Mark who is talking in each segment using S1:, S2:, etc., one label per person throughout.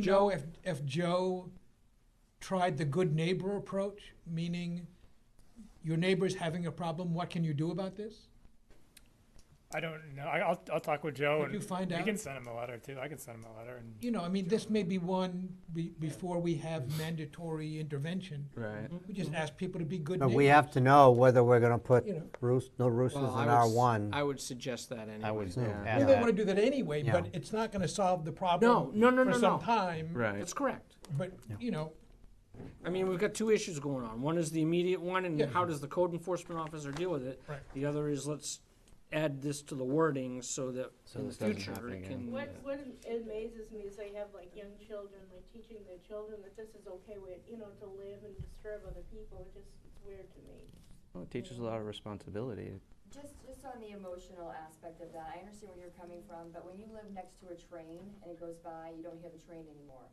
S1: Joe, if, if Joe tried the good neighbor approach, meaning your neighbor's having a problem, what can you do about this?
S2: I don't know. I, I'll, I'll talk with Joe
S1: Could
S2: and
S1: you find
S2: we
S1: out?
S2: can send him a letter too. I can send him a letter and
S1: You know, I mean, this may be one be, before we have mandatory intervention.
S3: Right.
S1: We just
S4: Mm-hmm.
S1: ask people to be good
S5: But
S1: neighbors.
S5: we have to know whether we're gonna put
S1: You know.
S5: roos, no roosters in
S6: Well, I
S5: R
S6: would s-
S5: one.
S6: I would suggest that anyway.
S7: I would
S5: Yeah.
S1: We
S7: add
S1: may wanna
S7: that.
S1: do that anyway, but
S5: Yeah.
S1: it's not gonna solve the problem.
S6: no, no, no,
S1: For some
S6: no.
S1: time.
S3: Right.
S6: That's correct.
S1: But, you know,
S6: I mean, we've got two issues going on. One is the immediate one, and
S1: Yeah.
S6: how does the code enforcement officer deal with it?
S1: Right.
S6: The other is let's add this to the wording so that
S7: So
S6: in the
S7: this doesn't
S6: future
S7: happen
S6: it
S7: again.
S6: can.
S8: What, what amazes me is they have like young children, like teaching their children that this is okay with, you know, to live and disturb other people, it just, it's weird to me.
S7: Well, it teaches a lot of responsibility.
S4: Just, just on the emotional aspect of that, I understand where you're coming from, but when you live next to a train and it goes by, you don't hear the train anymore.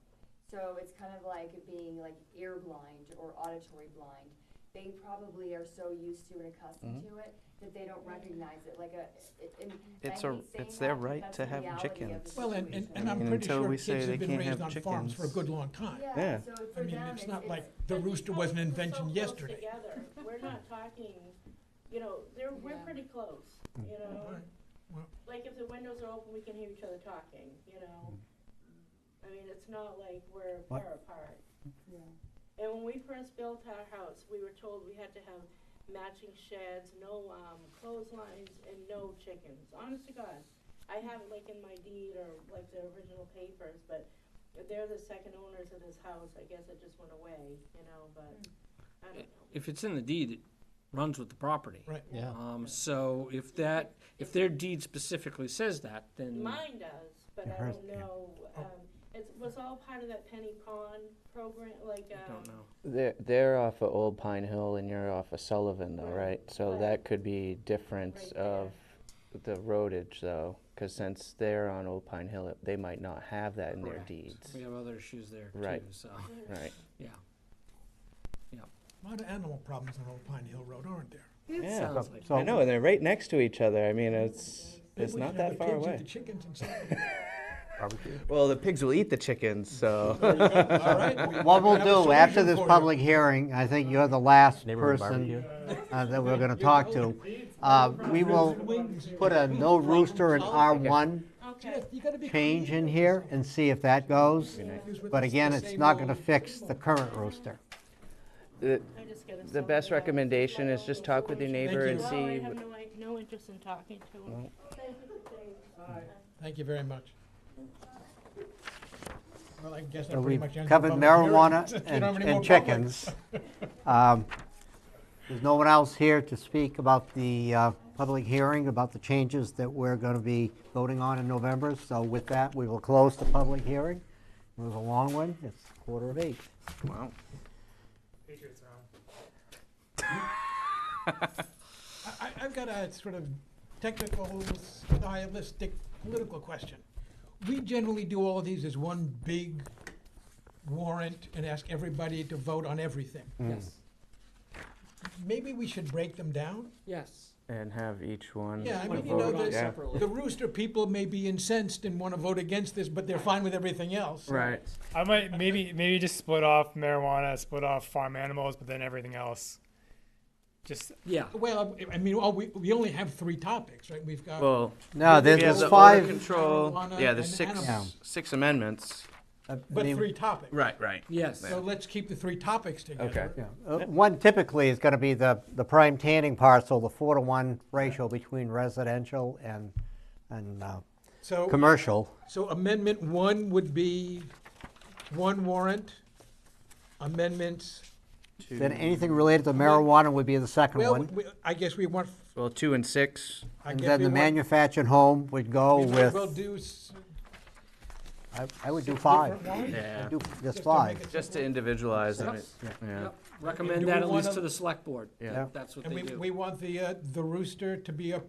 S4: So it's kind of like being like ear blind or auditory blind. They probably are so used to and accustomed
S7: Mm-hmm.
S4: to it that they don't recognize it, like a, it, it- and I
S7: It's a-
S4: hate saying
S7: it's their
S4: that, but
S7: right
S4: that's
S7: to
S4: the
S7: have
S4: reality of the
S7: chickens.
S1: well, and, and, and I'm
S4: situation.
S7: And
S1: pretty
S7: until
S1: sure
S7: we
S1: kids
S7: say
S1: have
S7: they
S1: been
S7: can't
S1: raised
S7: have
S1: on farms for a
S7: chickens.
S1: good long time.
S7: Yeah.
S4: Yeah, so
S1: I
S4: for
S1: mean,
S4: them,
S1: it's
S4: it's,
S1: not
S4: it's,
S1: like the
S8: But we
S1: rooster
S8: come-
S1: was an
S8: we're so
S1: invention
S8: close
S1: yesterday.
S8: Together, we're not talking, you know, they're, we're
S4: Yeah.
S8: pretty close, you know?
S1: Right. Hmm. Well-
S8: Like if the windows are open, we can hear each other talking, you know?
S1: Hmm.
S8: I mean, it's not like we're
S5: What-
S8: far apart.
S4: yeah.
S8: And when we first built our house, we were told we had to have matching sheds, no, um, clotheslines, and no chickens, honest to God. I have it like in my deed or like the original papers, but they're the second owners of this house, I guess it just went away, you know, but, I don't know.
S6: If it's in the deed, it runs with the property.
S1: Right.
S7: Yeah.
S6: Um, so if that, if their deed specifically says that, then
S8: Mine does, but I
S5: Hers-
S8: don't
S5: yeah.
S8: know, um, it was all part of that Penny Pond program, like,
S6: I
S8: um,
S6: don't know.
S7: They're, they're off of Old Pine Hill and you're off of Sullivan though,
S8: Right.
S7: right? So
S8: Right.
S7: that could be difference
S8: Right there.
S7: of the roadage though, because since they're on Old Pine Hill, it- they might not have that in their
S6: Correct.
S7: deeds.
S6: We have other issues there
S7: Right.
S6: too, so,
S7: Right.
S6: yeah.
S1: A lot of animal problems on Old Pine Hill Road, aren't there?
S7: Yeah.
S6: Sounds like,
S7: I
S5: So-
S7: know, and they're right next to each other. I mean, it's,
S1: Maybe
S7: it's
S1: we
S7: not
S1: should have the
S7: that far
S1: kids eat
S7: away.
S1: the chickens and stuff.
S7: Well, the pigs will eat the chickens, so.
S1: All right, we-
S5: What
S1: we
S5: we'll
S1: have a
S5: do, after
S1: solution
S5: this
S1: for you.
S5: public hearing, I think you're the last
S3: Neighborhood
S5: person
S3: barbecue.
S5: uh, that we're gonna talk to. Uh, we will put a no rooster in R one
S8: okay.
S1: You gotta be
S5: change in
S1: creative.
S5: here and see if that goes.
S1: Confused with
S5: But
S1: the-
S5: again,
S1: the
S5: it's
S1: same
S5: not gonna
S1: old-
S5: fix the current rooster.
S7: The,
S8: I just gotta
S7: the
S8: sell
S7: best
S8: the house.
S7: recommendation is just talk with your neighbor
S1: you.
S7: and
S8: No,
S7: see.
S8: I
S7: wh-
S8: have no, i- no interest in talking to him.
S1: Thank you very much. Well, I guess that
S5: So
S1: pretty
S5: we've
S1: much ends the
S5: covered
S1: public hearing.
S5: marijuana
S1: You don't
S5: and
S1: have any more
S5: and
S1: public?
S5: chickens. Um, There's no one else here to speak about the uh, public hearing, about the changes that we're going to be voting on in November. So with that, we will close the public hearing. It was a long one. It's quarter of eight.
S7: Wow.
S2: Patriots are on.
S1: I, I've got a sort of technical, stylistic, political question. We generally do all of these as one big warrant and ask everybody to vote on everything.
S6: yes,
S7: Mm.
S1: Maybe we should break them down?
S6: yes.
S7: And have each one.
S1: Yeah, I
S6: Wanna
S1: mean, you know,
S6: vote on
S1: the-
S6: separately.
S1: the rooster people may be incensed and want to vote against this, but they're fine with everything else.
S7: Right.
S2: I might maybe maybe just split off marijuana, split off farm animals, but then everything else. Just
S6: Yeah,
S1: Well, I- I mean, all we, we only have three topics, right? We've got.
S7: Well,
S5: No,
S7: we
S5: there's
S7: have
S5: there's
S7: the
S5: five,
S7: odor control.
S1: marijuana
S7: Yeah, there's
S1: and
S7: six,
S1: animals.
S7: six amendments.
S5: uh, I
S1: But
S5: mean,
S1: three topics.
S7: Right, right.
S6: yes.
S1: So let's keep the three topics together.
S5: yeah. Uh, one typically is going to be the, the prime tanning parcel, the four to one ratio between residential and, and uh,
S1: So.
S5: commercial.
S1: So amendment one would be one warrant, amendments,
S5: Then anything related to marijuana would be the second
S1: well,
S5: one.
S1: we- I guess we want,
S7: Well, two and six.
S1: I
S5: And
S1: guess
S5: then
S1: we
S5: the
S1: want.
S5: manufactured home would go
S1: we might
S5: with,
S1: well do s-
S5: I- I would do
S1: six
S5: five.
S1: different warrants,
S7: Yeah.
S5: I'd do
S1: just
S5: just
S1: to
S5: five.
S1: make it
S7: Just to
S1: simple.
S7: individualize
S6: Yep.
S7: them. Yeah.
S6: Yep. Recommend
S1: do
S6: that
S1: we
S6: at least
S1: wanna-
S6: to the select board.
S7: Yeah.
S6: if That's what
S1: And
S6: they
S1: we,
S6: do.
S1: we want the, uh, the rooster to be a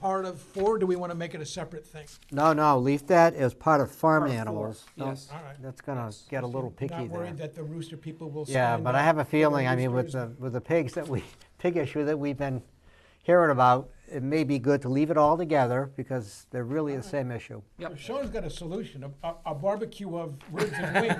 S1: part of four, do we want to make it a separate thing?
S5: No, no, leave that as part of farm
S6: Part four,
S5: animals. Don't-
S6: yes.
S1: All right.
S5: That's gonna get a little picky
S1: Not worried
S5: there.
S1: that the rooster people will sign.
S5: Yeah, but I have a
S1: up for the
S5: feeling, I mean, with
S1: roosters.
S5: the, with the pigs that we, pig issue that we've been hearing about, it may be good to leave it all together because they're really the same issue.
S6: Yep.
S1: Sean's got a solution, a- a, a barbecue of ribs and wings.